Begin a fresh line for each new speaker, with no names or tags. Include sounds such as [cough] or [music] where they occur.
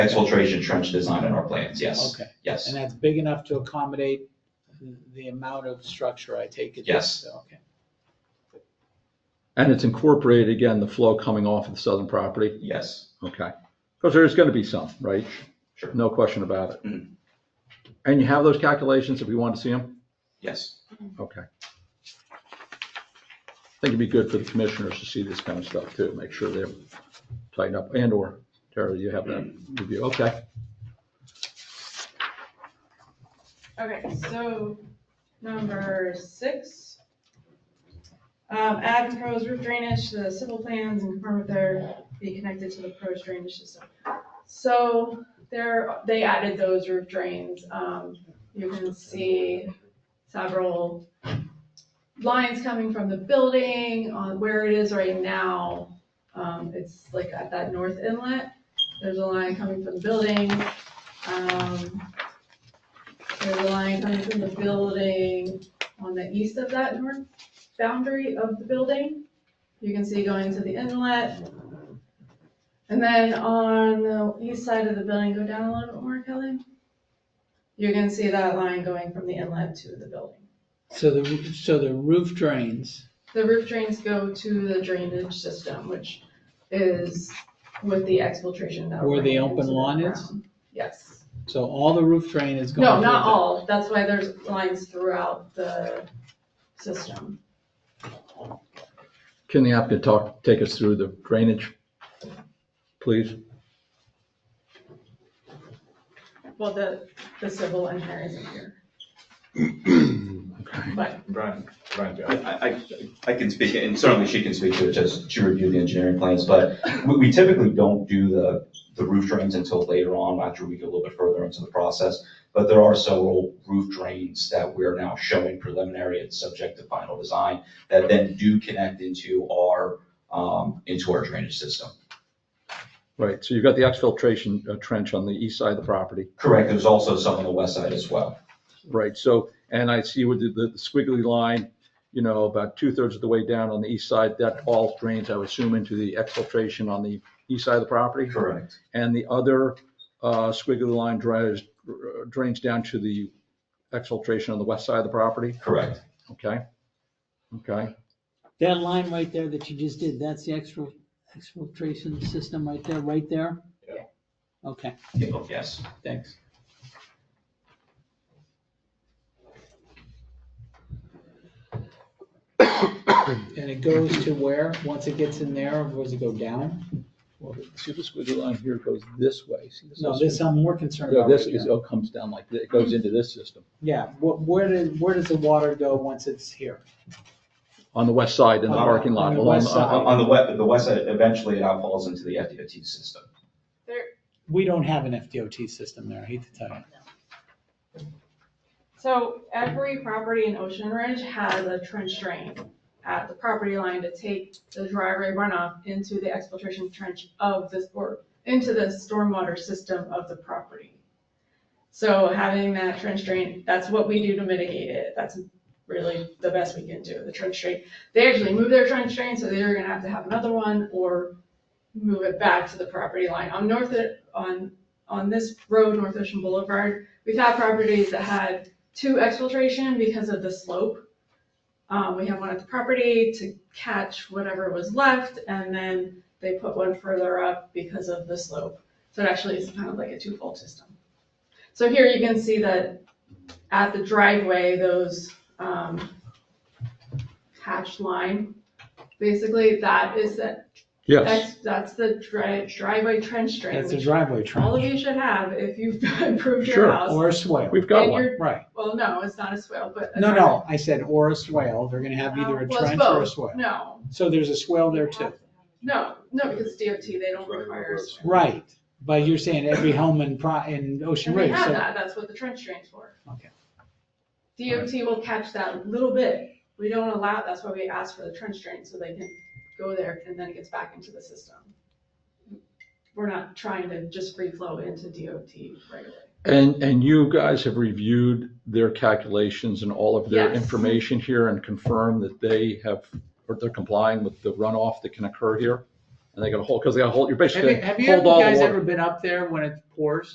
Exfiltration trench design in our plans, yes,
Okay,
yes,
and that's big enough to accommodate the amount of structure I take it?
Yes.
Okay,
And it's incorporated, again, the flow coming off of the southern property?
yes,
Okay. Because there's going to be some, right?
Sure.
No question about it.
Mm.
And you have those calculations if we want to see them?
yes.
Okay. I think it'd be good for the commissioners to see this kind of stuff too, make sure they're tightened up and or Terry, you have that review. Okay.
Okay, so number six. Um, add proposed roof drainage to the civil plans and confirm if they're be connected to the proposed drainage system. So there, they added those roof drains. Um, you can see several lines coming from the building on where it is right now. Um, it's like at that north inlet. There's a line coming from the building. Um, there's a line coming from the building on the east of that north boundary of the building. You can see going to the inlet. And then on the east side of the building, go down a little bit more, Kelly. You can see that line going from the inlet to the building.
so the, so the roof drains,
The roof drains go to the drainage system, which is with the exfiltration that.
Where the
ran
open
into the
lawn is?
ground. Yes.
so all the roof drain is going?
No,
through
not
the-
all. That's why there's lines throughout the system.
Can the applicant talk, take us through the drainage, please?
Well, the, the civil engineer isn't here,
Okay.
but
Brian, Brian,
I,
Joe.
I, I- I can speak, and certainly she can speak to it, just she reviewed the engineering plans, but we, we typically don't do the, the roof drains until later on, after we get a little bit further into the process. But there are several roof drains that we're now showing preliminary and subject to final design that then do connect into our, um, into our drainage system.
Right. So you've got the exfiltration uh, trench on the east side of the property.
Correct, there's also some on the west side as well.
Right, so, and I see with the, the squiggly line, you know, about two thirds of the way down on the east side, that all drains, I would assume, into the exfiltration on the east side of the property.
Correct.
And the other uh, squiggly line drains, drains down to the exfiltration on the west side of the property,
Correct.
okay? Okay,
That line right there that you just did, that's the extra exfiltration system right there, right there?
Yeah.
Okay,
Yes.
Thanks. And it goes to where, once it gets in there, or does it go down?
well, see the squiggly line here goes this way, see this?
No, this I'm more concerned
No,
about.
this
right
is,
now.
oh, comes down like, thi- it goes into this system,
Yeah, where, where did, where does the water go once it's here?
on the west side in the
On-
parking lot.
on the
along-
west side.
On on the west, the west side, eventually it all falls into the FDOT system.
We don't have an FDOT system there, I hate to tell you.
So every property in Ocean Ridge has a trench drain at the property line to take the driveway runoff into the exfiltration trench of this, or into the stormwater system of the property. So having that trench drain, that's what we do to mitigate it. That's really the best we can do, the trench drain. They actually moved their trench drain, so they're gonna have to have another one or move it back to the property line. On North, on, on this road, North Ocean Boulevard, we've had properties that had to exfiltration because of the slope. Um, we have one at the property to catch whatever was left, and then they put one further up because of the slope. So it actually is kind of like a twofold system. So here you can see that at the driveway, those, um, hatched line, basically that is the,
Yes,
that's, that's the dri- driveway trench drain,
That's a
which
driveway
all of
trench,
you should have if you've [laughs] improved
Sure.
your house.
or a swale,
we've got
And
one.
your
right.
well, no, it's not a swale, but. a
No,
driveway.
no, I said or a swale, they're gonna have either a
Um, well, it's
trench or a
both.
swale.
No,
So there's a swale there too.
no, no, because DOT, they don't require a swale.
Right, but you're saying every home in Pro, in Ocean
And they
Ridge,
have
so,
that, that's what the trench drain's for.
Okay.
DOT will catch that little bit. We don't allow, that's why we ask for the trench drain, so they can go there and then it gets back into the system. We're not trying to just free flow into DOT right away.
And, and you guys have reviewed their calculations and all of their
Yes.
information here and confirmed that they have, or they're complying with the runoff that can occur here? and they got a hole, because they got a hole, you're
Have you,
basically
have you
hold all the
guys
water.
ever been up there when it pours?